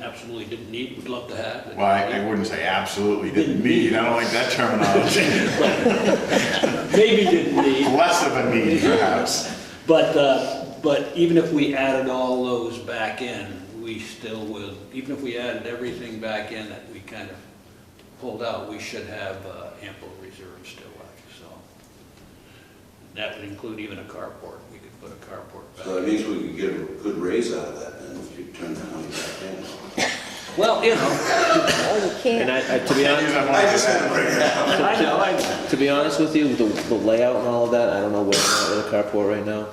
absolutely didn't need, would love to have. and- Well, I I wouldn't say absolutely didn't need, I don't like that terminology, Maybe didn't need, less of a need perhaps. but, uh, but even if we added all those back in, we still will, even if we added everything back in that we kind of pulled out, we should have uh, ample reserves still left, so. That would include even a carport, we could put a carport back. So that means we could get a good raise out of that, and if you turn that money back Well, you know, Oh, you And can't. I, I, to be honest, in. I just had to bring it up. I know, I, to be honest with you, the, the layout and all of that, I don't know where I'm at with a carport right now.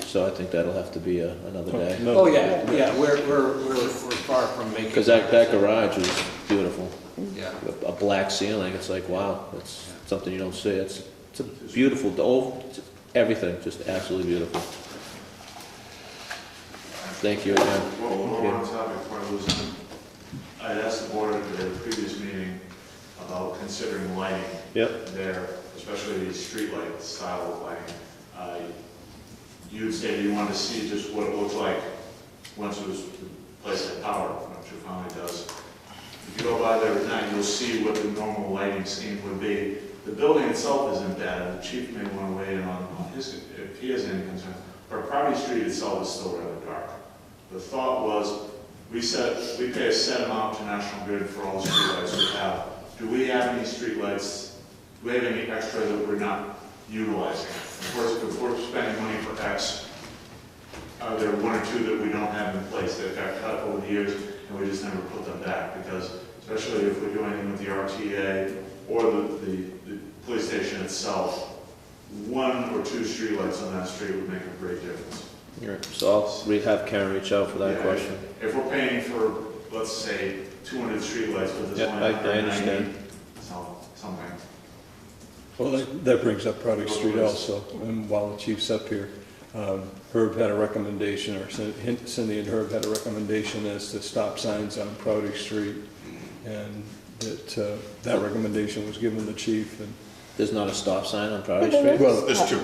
So I think that'll have to be uh, another day. oh, yeah, yeah, we're, we're, we're we're far from making. Because that, that garage is beautiful. Yeah. A, a black ceiling, it's like, wow, that's something you don't see. It's, it's a beautiful, the old, it's everything, just absolutely beautiful. Thank you again. Well, one more topic before I lose it. I had asked the board at the previous meeting about considering lighting Yep, there, especially the streetlight style of lighting. Uh, You'd say you wanted to see just what it looked like once it was placed at power, which it finally does. If you go by there at night, you'll see what the normal lighting scheme would be. The building itself isn't bad, the chief may want to weigh in on on his, if he has any concern, but Property Street itself is still rather dark. The thought was, we set, we pay a set amount to National Grid for all the streetlights we have. Do we have any streetlights, do we have any extra that we're not utilizing? Of course, if we're spending money for X, are there one or two that we don't have in place that got cut over the years and we just never put them back? Because especially if we're doing anything with the RTA or the, the, the police station itself, one or two streetlights on that street would make a great difference. All right, so I'll re- have Karen reach out for that Yeah, question. If we're paying for, let's say, two hundred streetlights, but there's Yeah, only I- I hundred and ninety, understand. something. Well, that- that brings up Product Street also, and while the chief's up here, um, Herb had a recommendation, or Cin- Cindy and Herb had a recommendation as to stop signs on Product Street, and that, uh, that recommendation was given the chief, and There's not a stop sign on Priory Yeah, Street? there Well, There's two.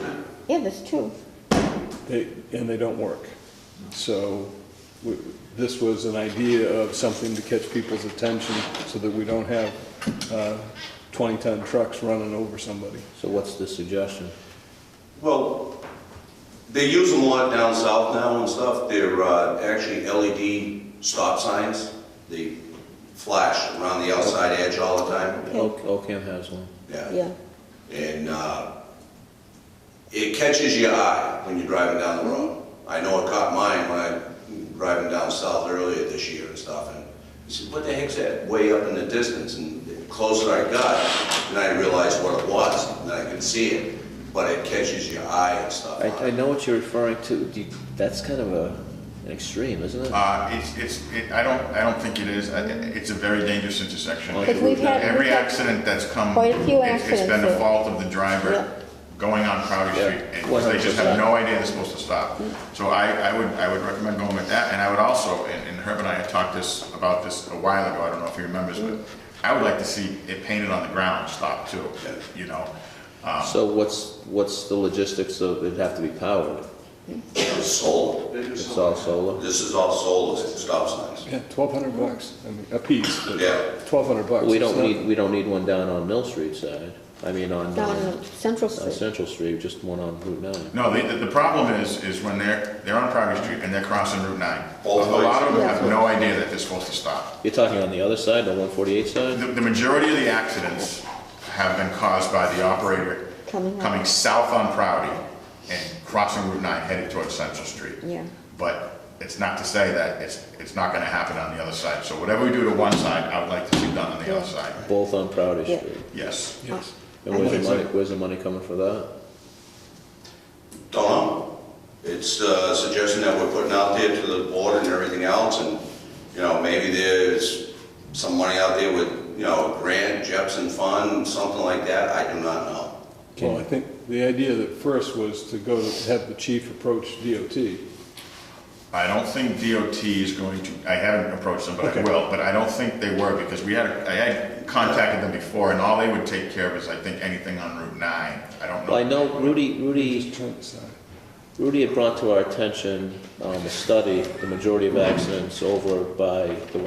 Yeah, there's two. they, and they don't work. So, we- this was an idea of something to catch people's attention, so that we don't have 20-ton trucks running over somebody. So what's the suggestion? Well, they use them a lot down south now and stuff. They're uh, actually LED stop signs. They flash around the outside edge all the time. O- Ocam has one. Yeah. Yeah. And uh, it catches your eye when you're driving down the road. Mm-hmm. I know it caught mine when I driving down south earlier this year and stuff. And I said, what the heck's that way up in the distance? And the closer I got, then I realized what it was. And then I could see it, but it catches your eye and stuff. I, on I it. know what you're referring to. Do you- That's kind of a, an extreme, isn't it? Uh, It's, it's, it- I don't, I don't think it is, I- it's a very dangerous intersection. Because we've had- Every we've had accident that's come. quite a few it's- It's been the accidents. fault of the Yeah. driver going on Crowder Yeah, Street, and 'cause they just have no idea they're supposed to stop. So I, I would, I would recommend going with that, and I would also, and and Herb and I had talked this, about this a while ago, I don't know if he remembers, but I would like to see it painted on the ground, stop too, you know? So what's, what's the logistics of, it'd have to be powered? It's solar. They do It's something. all solar? This is all solar stop signs. Yeah, twelve hundred bucks, I mean, a piece, but Yeah. twelve hundred bucks. We it's don't not- need, we don't need one down on Mill Street side. I mean, on, Down um, on Central on Street. Central Street, just one on Route nine. No, the, the- the problem is, is when they're, they're on Crowder Street and they're crossing Route 9. A Both lot of them ways. have no idea that they're supposed to stop. You're talking on the other side, the one forty-eight side? The, the majority of the accidents have been caused by the operator Coming up. coming south on Prouty and crossing Route 9 headed towards Central Street. Yeah. But it's not to say that it's, it's not gonna happen on the other side. So whatever we do to one side, I would like to see done on the other side. Both on Proudy Yeah. Street. Yes. Yes. And where's Okay. the money, where's the money coming for that? Don't know. It's uh, a suggestion that we're putting out there to the board and everything else, and, you know, maybe there's some money out there with, you know, grant, Jepson Fund, something like that, I do not know. Well, I think the idea that first was to go to have the chief approach DOT. I don't think DOT is going to, I haven't approached them, but I Okay. will, but I don't think they were, because we had, I had contacted them before, and all they would take care of is, I think, anything on Route 9. I don't know. Well, I know Rudy, Rudy Trying to decide. Rudy had brought to our attention um, a study, the majority of accidents over by the